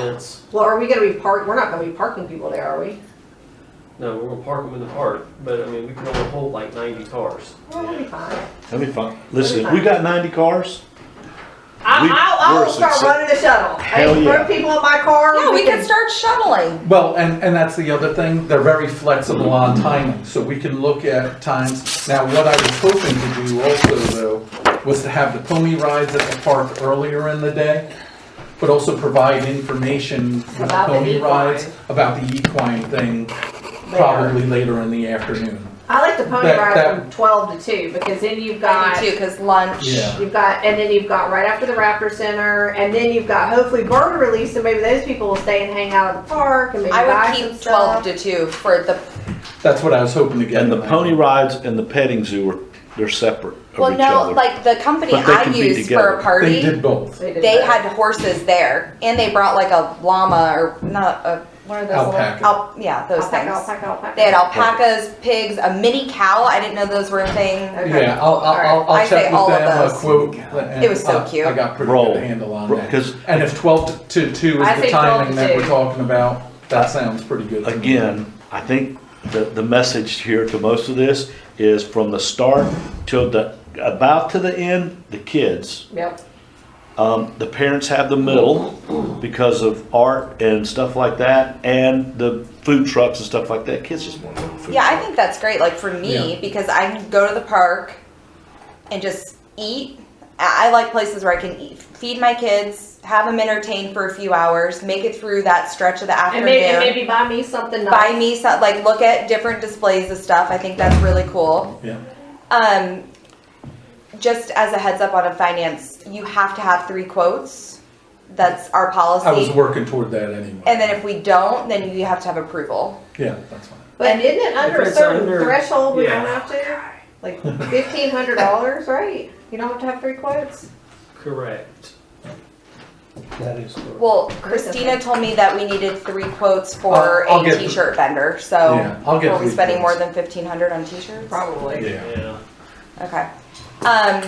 events. Well, are we gonna be park, we're not gonna be parking people there, are we? No, we're gonna park them in the park, but I mean, we can only hold like ninety cars. Well, we'll be fine. That'd be fun. Listen, if we got ninety cars, I, We- I'll, I'll we're start success- running a shuttle. Hell Hey, yeah. Put people in my car. Yeah, we can start shuttling. Well, and, and that's the other thing, they're very flexible on timing, so we can look at times. Now, what I was hoping to do also though, was to have the pony rides at the park earlier in the day, but also provide information with the About the pony rides equine. about the equine thing, probably later in the afternoon. I like the pony That- ride that- from twelve to two, because then you've I got, do too, cause lunch. Yeah. you've got, and then you've got right after the Raptor Center, and then you've got hopefully bird release, and maybe those people will stay and hang out at the park and maybe I buy would some keep twelve stuff. to two for the, That's what I was hoping to get. and the pony rides and the petting zoo are, they're separate of well, each no, other. like the company But they I can be used for together. They a They party, did both, They did they that. had horses there and they brought like a llama or not a, what are those? little- Alpaca. Al, yeah, those Alpaca, things. alpaca, alpaca. They had alpacas, pigs, a mini cow. I didn't know those were a thing. Okay. yeah, I'll, I'll- I'll, Alright, I I'll say check all with of them, a those. quote. uh, and It was so I- cute. I got pretty Roll. good handle on Roll, that. 'cause- And if twelve to two I is the say 12 to timing that we're two. talking about, that sounds pretty good. to me. Again, I think the, the message here to most of this is from the start till the, about to the end, the kids. Yep. Um, the parents have the middle because of art and stuff like that and the food trucks and stuff like that. Kids just want to go to food. Yeah, I think that's great, like for me, Yeah. because I can go to the park and just eat. I I like places where I can eat, feed my kids, have them entertained for a few hours, make it through that stretch of the And maybe, and afternoon. maybe buy me something nice. Buy me some, like, look at different displays of stuff. I think that's really cool. Yeah. Um, just as a heads up on a finance, you have to have three quotes. That's our policy. I was working toward that anyway. And then if we don't, then you have to have approval. Yeah, that's fine. But isn't it under If a it's certain under- threshold we yeah. don't have to? Like fifteen hundred dollars, right? You don't have to have three quotes? Correct. That is correct. Well, Christina told me that we needed three quotes for I'll- I'll a get the- t-shirt vendor, so Yeah, I'll are get we three Oh, spending more quotes. than fifteen hundred on t-shirts? Probably. Yeah. Yeah, Okay. Um,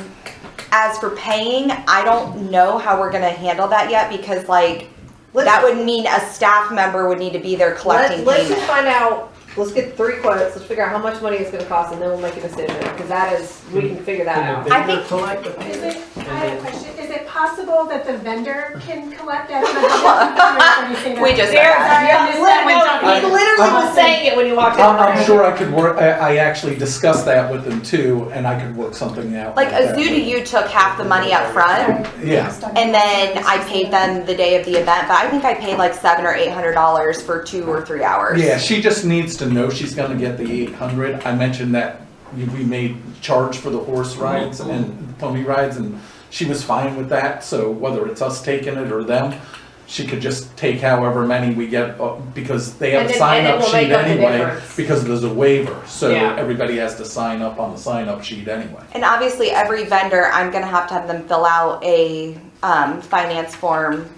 as for paying, I don't know how we're gonna handle that yet because like Let's- that would mean a staff member would need to be there collecting Let's, let's just find payment. out, let's get three quotes, let's figure out how much money it's gonna cost and then we'll make a decision, cause that is, we can figure that out. I think- Collect the Is payment. it, I have a question, is it possible that the vendor can collect as much as the We just said Sorry, that. I missed that when talking. I- He literally I'm- was saying it when you walked in. I'm, I'm sure I could work, I, I actually discussed that with them too, and I could work something out. Like that. Azudu, you took half the money up front Yeah, and then I paid them the day of the event, but I think I paid like seven or eight hundred dollars for two or three hours. yeah, she just needs to know she's gonna get the eight hundred. I mentioned that we we made charge for the horse Mm-hmm. rides and pony rides, and she was fine with that, so whether it's us taking it or them, she could just take however many we get, uh, because they have And a then- sign and then up we'll sheet make up the anyway, difference. because there's a waiver, so Yeah. everybody has to sign up on the sign up sheet anyway. And obviously, every vendor, I'm gonna have to have them fill out a um, finance form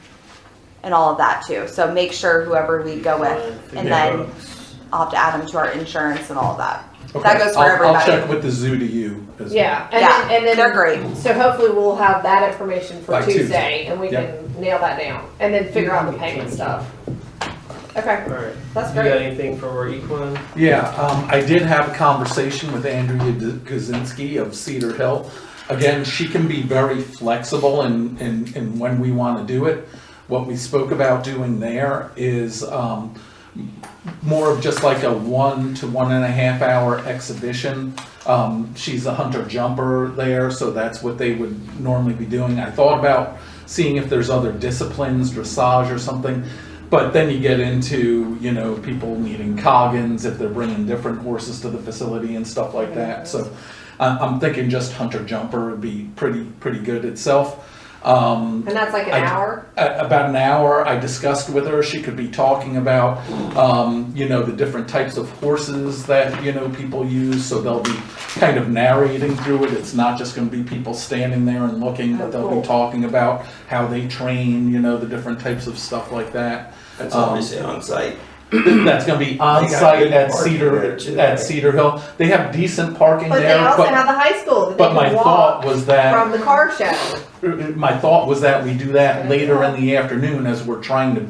and all of that too. So make sure whoever we go with, and then I'll have to add them to our insurance and all of that. That Okay, goes for I'll- everybody. I'll check with the zoo to you as well. Yeah, and yeah, then, and then. they're great. So hopefully we'll have that information for By Tuesday. Tuesday and we Yep. can nail that down and then figure out the payment stuff. Okay, All right. that's You great. got anything for our equine? Yeah, um, I did have a conversation with Andrea D- Kaczynski of Cedar Hill. Again, she can be very flexible in, in, in when we want to do it. What we spoke about doing there is, um, more of just like a one to one and a half hour exhibition. Um, she's a hunter jumper there, so that's what they would normally be doing. I thought about seeing if there's other disciplines, dressage or something, but then you get into, you know, people needing coggins if they're bringing different horses to the facility and stuff like that. So I- I'm thinking just hunter jumper would be pretty, pretty good itself. Um, And that's like an I- hour? a- about an hour. I discussed with her. She could be talking about, um, you know, the different types of horses that, you know, people use. So they'll be kind of narrating through it. It's not just going to be people standing there and looking, but they'll Oh, Cool. be talking about how they train, you know, the different types of stuff like that. That's Um, obviously on site. That's going to be on site at Cedar, at Cedar Hill. They have decent parking But they there, also have but, the high school that they but my can walk thought was that. from the car show. my thought was that we do that later in the afternoon as we're trying to